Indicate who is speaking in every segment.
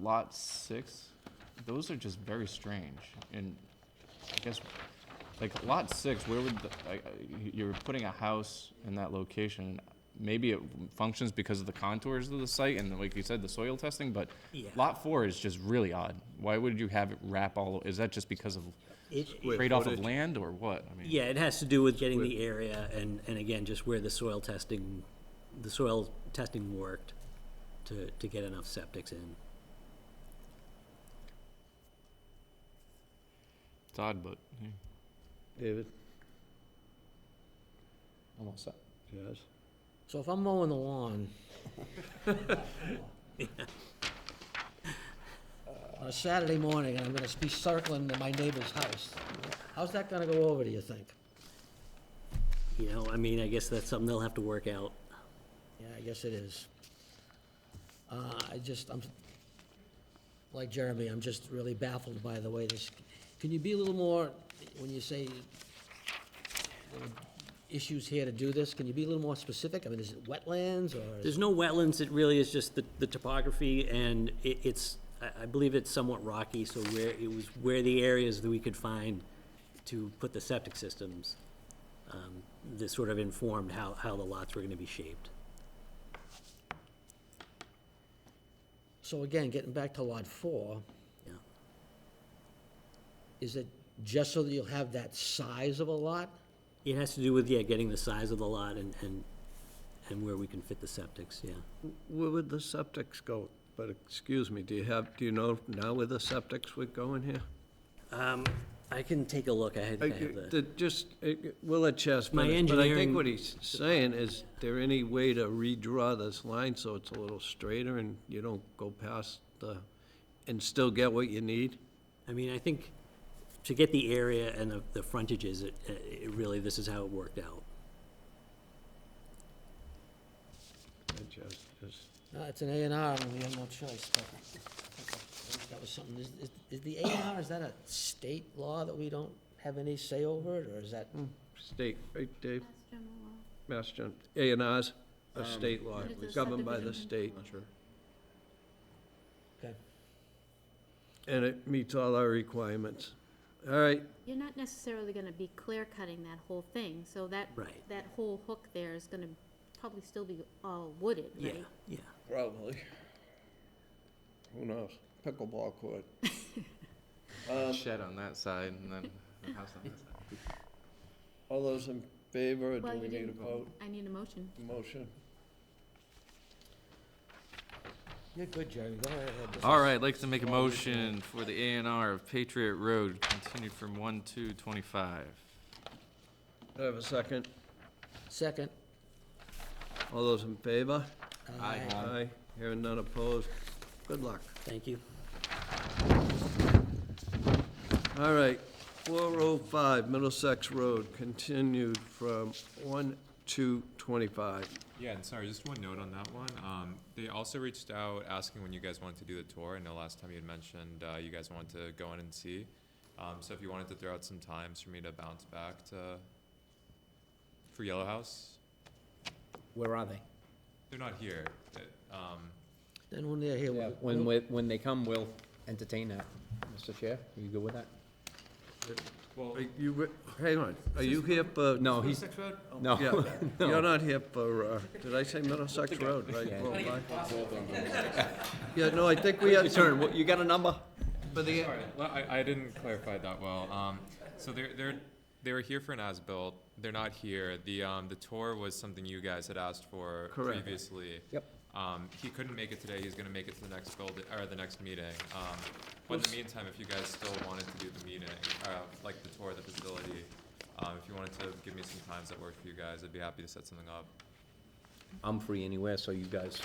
Speaker 1: lot six, those are just very strange. And I guess, like, lot six, where would, the- I- I- you're putting a house in that location. Maybe it functions because of the contours of the site and, like you said, the soil testing, but
Speaker 2: Yeah.
Speaker 1: lot four is just really odd. Why would you have it wrap all, is that just because of
Speaker 2: It,
Speaker 3: Square
Speaker 1: trade-off of
Speaker 3: footage.
Speaker 1: land or what? I mean,
Speaker 2: yeah, it has to do with getting the area and, and again, just where the soil testing, the soil testing worked to, to get enough septics in.
Speaker 1: it's odd, but, yeah,
Speaker 3: David?
Speaker 1: I'm all set.
Speaker 3: Yes.
Speaker 4: So if I'm mowing the lawn. On a Saturday morning, and I'm gonna be circling to my neighbor's house, how's that gonna go over, do you think?
Speaker 2: You know, I mean, I guess that's something they'll have to work out.
Speaker 4: Yeah, I guess it is. Uh, I just, I'm, like Jeremy, I'm just really baffled by the way this, can you be a little more, when you say there are issues here to do this, can you be a little more specific? I mean, is it wetlands, or? is it-
Speaker 2: There's no wetlands, it really is just the, the topography, and it, it's, I, I believe it's somewhat rocky, so where, it was where the areas that we could find to put the septic systems, um, that sort of informed how, how the lots were gonna be shaped.
Speaker 4: So again, getting back to lot four,
Speaker 2: Yeah.
Speaker 4: is it just so that you'll have that size of a lot?
Speaker 2: It has to do with, yeah, getting the size of the lot and, and, and where we can fit the septics, yeah.
Speaker 3: Where would the septics go? But excuse me, do you have, do you know now where the septics would go in here?
Speaker 2: Um, I can take a look, I had, I
Speaker 3: Uh,
Speaker 2: have the,
Speaker 3: the- Just, uh, we'll let Chas
Speaker 2: My
Speaker 3: finish, but I
Speaker 2: engineering-
Speaker 3: think what he's saying is, there any way to redraw this line so it's a little straighter and you don't go past the, and still get what you need?
Speaker 2: I mean, I think to get the area and the, the frontages, it, it really, this is how it worked out.
Speaker 3: Let Chas just-
Speaker 4: No, it's an A and R, and we have no choice, but okay, that was something, is, is- is the A and R, is that a state law that we don't have any say over it, or is that?
Speaker 3: State, right, Dave?
Speaker 5: That's general law.
Speaker 3: Mass Gen, A and R's, a state law,
Speaker 5: It is a
Speaker 3: governed by the
Speaker 5: subdivision.
Speaker 3: state.
Speaker 4: Okay.
Speaker 3: And it meets all our requirements. All right,
Speaker 5: You're not necessarily gonna be clear cutting that whole thing, so that,
Speaker 2: Right.
Speaker 5: that whole hook there is gonna probably still be all wooded,
Speaker 2: Yeah,
Speaker 5: right?
Speaker 2: yeah.
Speaker 3: Probably. Who knows? Pickleball court.
Speaker 1: Shed on that side and then a house on that side.
Speaker 3: All those in favor, or do
Speaker 5: Well,
Speaker 3: we
Speaker 5: you
Speaker 3: need a
Speaker 5: didn't-
Speaker 3: vote,
Speaker 5: I need a motion.
Speaker 3: motion?
Speaker 4: You're good, Jeremy, go right ahead. This
Speaker 1: All
Speaker 4: is-
Speaker 1: right, I'd like to make a
Speaker 4: Well, we can-
Speaker 1: motion for the A and R of Patriot Road, continued from one to twenty-five.
Speaker 3: Do I have a second?
Speaker 4: Second.
Speaker 3: All those in favor?
Speaker 1: Aye.
Speaker 3: Aye. Hearing none opposed. Good luck.
Speaker 2: Thank you.
Speaker 3: All right, 405 Middlesex Road, continued from 1 to 25.
Speaker 6: Yeah, and sorry, just one note on that one. Um, they also reached out asking when you guys wanted to do the tour. I know last time you had mentioned uh, you guys wanted to go in and see. Um, so if you wanted to throw out some times for me to bounce back to for Yellow House,
Speaker 7: Where are they?
Speaker 6: they're not here. It- um,
Speaker 4: Then when they're here, we'll-
Speaker 7: When, we- when they come, we'll entertain that. Mr. Chair, are you good with that?
Speaker 6: well,
Speaker 3: Are you, re- hang on, are you here for?
Speaker 7: No, he's, no.
Speaker 3: Yeah, you're not here for, uh, did I say Middlesex Road, right?
Speaker 7: Yeah.
Speaker 3: Well, I- Yeah, no, I think we had some,
Speaker 7: What, you got a number?
Speaker 3: for the,
Speaker 6: Sorry, well, I, I didn't clarify that well. Um, so they're, they're, they were here for an as-built, they're not here. The, um, the tour was something you guys had asked for
Speaker 3: Correct.
Speaker 6: previously.
Speaker 7: Yep.
Speaker 6: Um, he couldn't make it today, he's gonna make it to the next build, or the next meeting. Um, but in the meantime, if you guys still wanted to do the meeting, uh, like the tour of the facility, um, if you wanted to give me some times that work for you guys, I'd be happy to set something up.
Speaker 7: I'm free anywhere, so you guys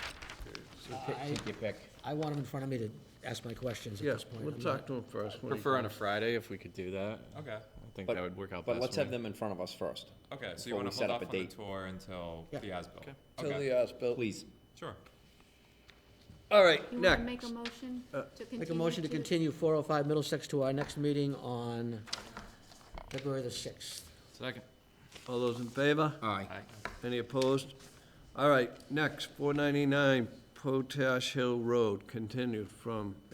Speaker 4: I,
Speaker 7: take your pick.
Speaker 4: I want them in front of me to ask my questions at
Speaker 3: yeah,
Speaker 4: this point.
Speaker 3: we'll
Speaker 4: I'm
Speaker 3: talk
Speaker 4: not-
Speaker 3: to him first. when he
Speaker 1: Prefer on a
Speaker 3: comes.
Speaker 1: Friday if we could do that. I
Speaker 6: Okay,
Speaker 1: think
Speaker 8: But-
Speaker 1: that would work out best
Speaker 8: But let's
Speaker 1: for
Speaker 8: have
Speaker 1: me.
Speaker 8: them in front of us first,
Speaker 6: okay, so
Speaker 8: Before
Speaker 6: you wanna
Speaker 8: we
Speaker 6: hold
Speaker 8: set up
Speaker 6: off on
Speaker 8: a
Speaker 6: the
Speaker 8: date.
Speaker 6: tour until
Speaker 4: Yeah.
Speaker 6: the as-built?
Speaker 3: Till
Speaker 6: Okay,
Speaker 3: the as-built.
Speaker 8: please.
Speaker 6: sure.
Speaker 3: All right,
Speaker 5: You wanna make a
Speaker 3: next.
Speaker 5: motion
Speaker 3: Uh,
Speaker 5: to continue
Speaker 4: Make a motion to continue four oh five Middlesex to our next meeting on February the sixth.
Speaker 1: Second.
Speaker 3: All those in favor?
Speaker 7: Aye.
Speaker 3: Any opposed? All right, next, 499 Potash Hill Road, continued from